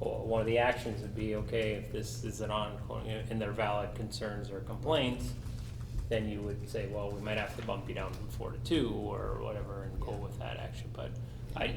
one of the actions would be, okay, if this is an ongoing, and they're valid concerns or complaints, then you would say, well, we might have to bump you down from four to two or whatever and go with that action, but I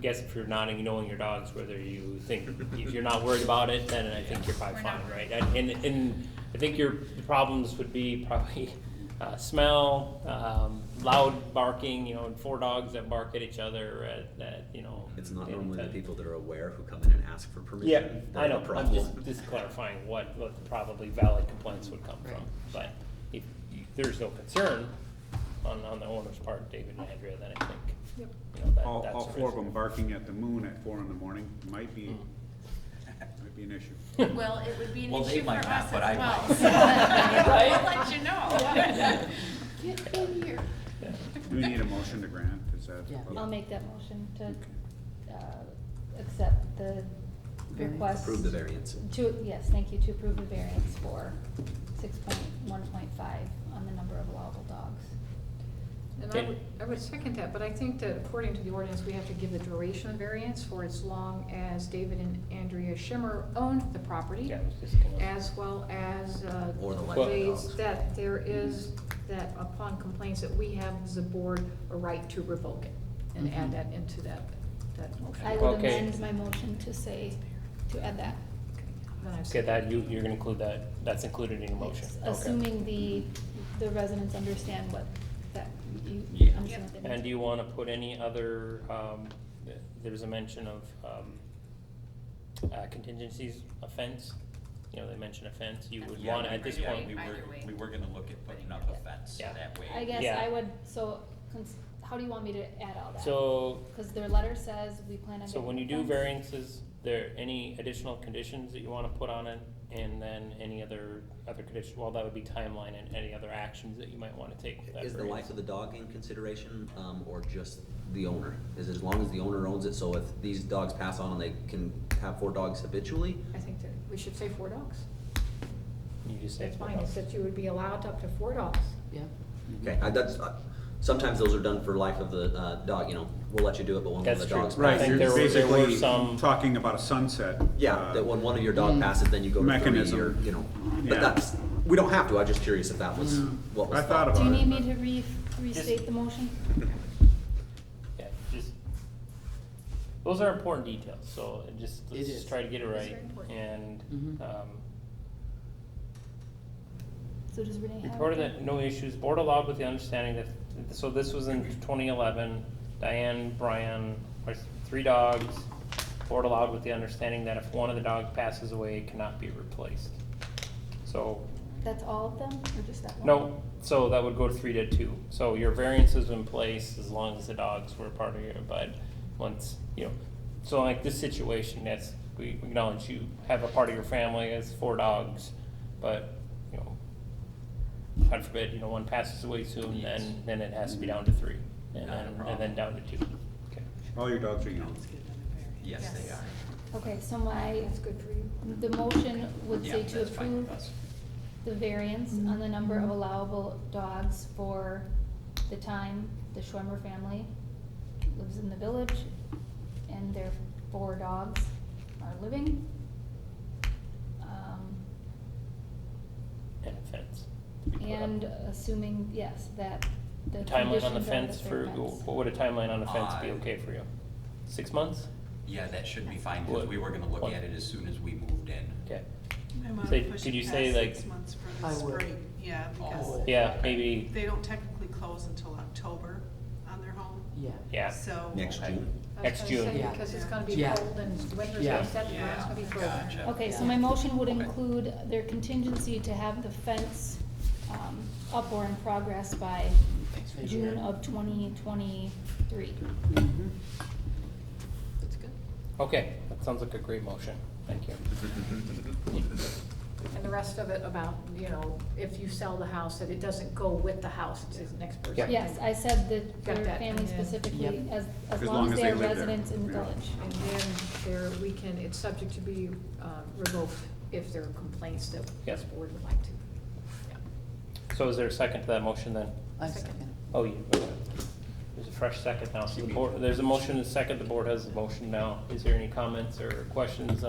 guess if you're not ignoring your dogs, whether you think, if you're not worried about it, then I think you're probably We're not fine, right? worried. And, and- and I think your problems would be probably uh, smell, um, loud barking, you know, and four dogs that bark at each other at, that, you know. It's not normally the that- people that are aware who come in and ask for permission. yeah, that I are know, the I'm just, problem. just clarifying what, what probably valid complaints would come from. Right. But if you- there's no concern on, on the owner's part, David and Andrea, then I think, you know, that, that's. All, all a four of risk. them barking at the moon at four in the morning might be, might be an issue. Well, it would be an Well, they issue for might us not, as but I well. might. so Right? We'll let you know. Get in here. Yeah. Do we need a motion to grant? Is that? Yeah. I'll make that motion to, uh, accept the request. Approve the variance. To, yes, thank you, to approve the variance for six point one point five on the number of allowable dogs. And I would, I would second that, but I think that according to the ordinance, we have to give the duration variance for as long as David and Andrea Schimmer owned the property, Yeah, I was just gonna- as well as, uh, Or the license. ways that there is, that upon complaints that we have as a board, a right to revoke it, and Mm-hmm. add that into that, that motion. I would Okay. amend my motion to say, to add that. Then I've Okay, said- that, you, you're gonna include that, that's included in your motion, Yes, okay. Assuming the, the residents understand what, that, you Yeah. understand what they And do need. you wanna put any other, um, th- there's a mention of, um, uh, contingencies, offense? You know, they mention offense, you would Yeah, wanna, we at were- this yeah, point, We Either were, way. we were gonna look at putting up a fence Yeah. that way. I guess Yeah. I would, so, cons- how do you want me to add all that? so Cause their letter says we plan on. So when you getting do a fence. variances, there any additional conditions that you wanna put on it? And then any other, other condition, well, that would be timeline and any other actions that you might wanna take with that Is the life variance. of the dog in consideration, um, or just the owner? Is it as long as the owner owns it, so if these dogs pass on and they can have four dogs habitually? Mm-hmm. I think that we should say four dogs. You just say. That's fine, it's that you would be allowed up to four dogs. Yeah. Okay, I, that's, uh, sometimes those are done for life of the, uh, dog, you know, we'll let you do it, but when one of That's the true. dogs Right. I passes- think You're there were- there were basically some- Talking about a sunset. Yeah, uh, that when one of your Mm. dog passes, then you go to three, Mechanism. or, you know, Yeah. but that's, we don't have to, I'm just curious if that was Mm. what was I thought Do you about it. need me to re- restate the motion? Yeah, just, those are important details, so it just, It let's is. just try to get it It's right. very important. And, Mm-hmm. Mhm. um, So does Renee have? Reported that no issues, board allowed with the understanding that, so this was in twenty eleven, Diane, Brian, or three dogs. Board allowed with the understanding that if one of the dogs passes away, it cannot be replaced. So, That's all of them, or just that one? no, so that would go to three to two, so your variance is in place as long as the dogs were part of your, but once, you know. So like this situation, that's, we acknowledge you have a part of your family as four dogs, but, you know, God forbid, you know, one passes away soon, then, then it has to be down to three, and Not a then, and problem. then down to two. Okay. All your dogs are young. Yes, they Yes. are. Okay, so my, That's good for you. the motion would Yeah, say to that's fine with approve us. the variance on the number of allowable dogs for the time the Schwemmer family lives in the village and their four dogs are living. Um, And a fence. And assuming, yes, that the Timeline on the conditions are fence for, fair fence. what would a timeline on a fence be Uh, okay for you? Six months? Yeah, that should be fine, because What- we were gonna look what- at it as soon as we moved in. Okay. I wanna Say- push could it you past say, like- Six months for I the would. spring, yeah, Oh. because Yeah, maybe, they don't technically close until October on their home, Yeah. yeah. so. Next Okay. June. I was Next gonna June. say, Yeah. Because it's gonna be Yeah. cold and winter's Yeah. gonna set, and it's gonna be cold. Gotcha. Okay, so Yeah. my motion would Okay. include their contingency to have the fence, um, up or in progress by Thanks, June Adrian. of twenty twenty-three. Mhm. That's good. Okay, that sounds like a great motion. Thank you. And the rest of it about, you know, if you sell the house, that it doesn't go with the house, it's the next Yeah. person. Yes, I said that Got their that, family and then- specifically, Yep. as, as long as they are live there, residents in the yeah. village. And then there, we can, it's subject to be uh, revoked if there are complaints that Yes. this board would like to. Yeah. So is there a second to that motion then? I Second. second. Oh, you, okay. there's a fresh second now. So the board, there's a motion and a second. The board has a motion now. Is there any comments or questions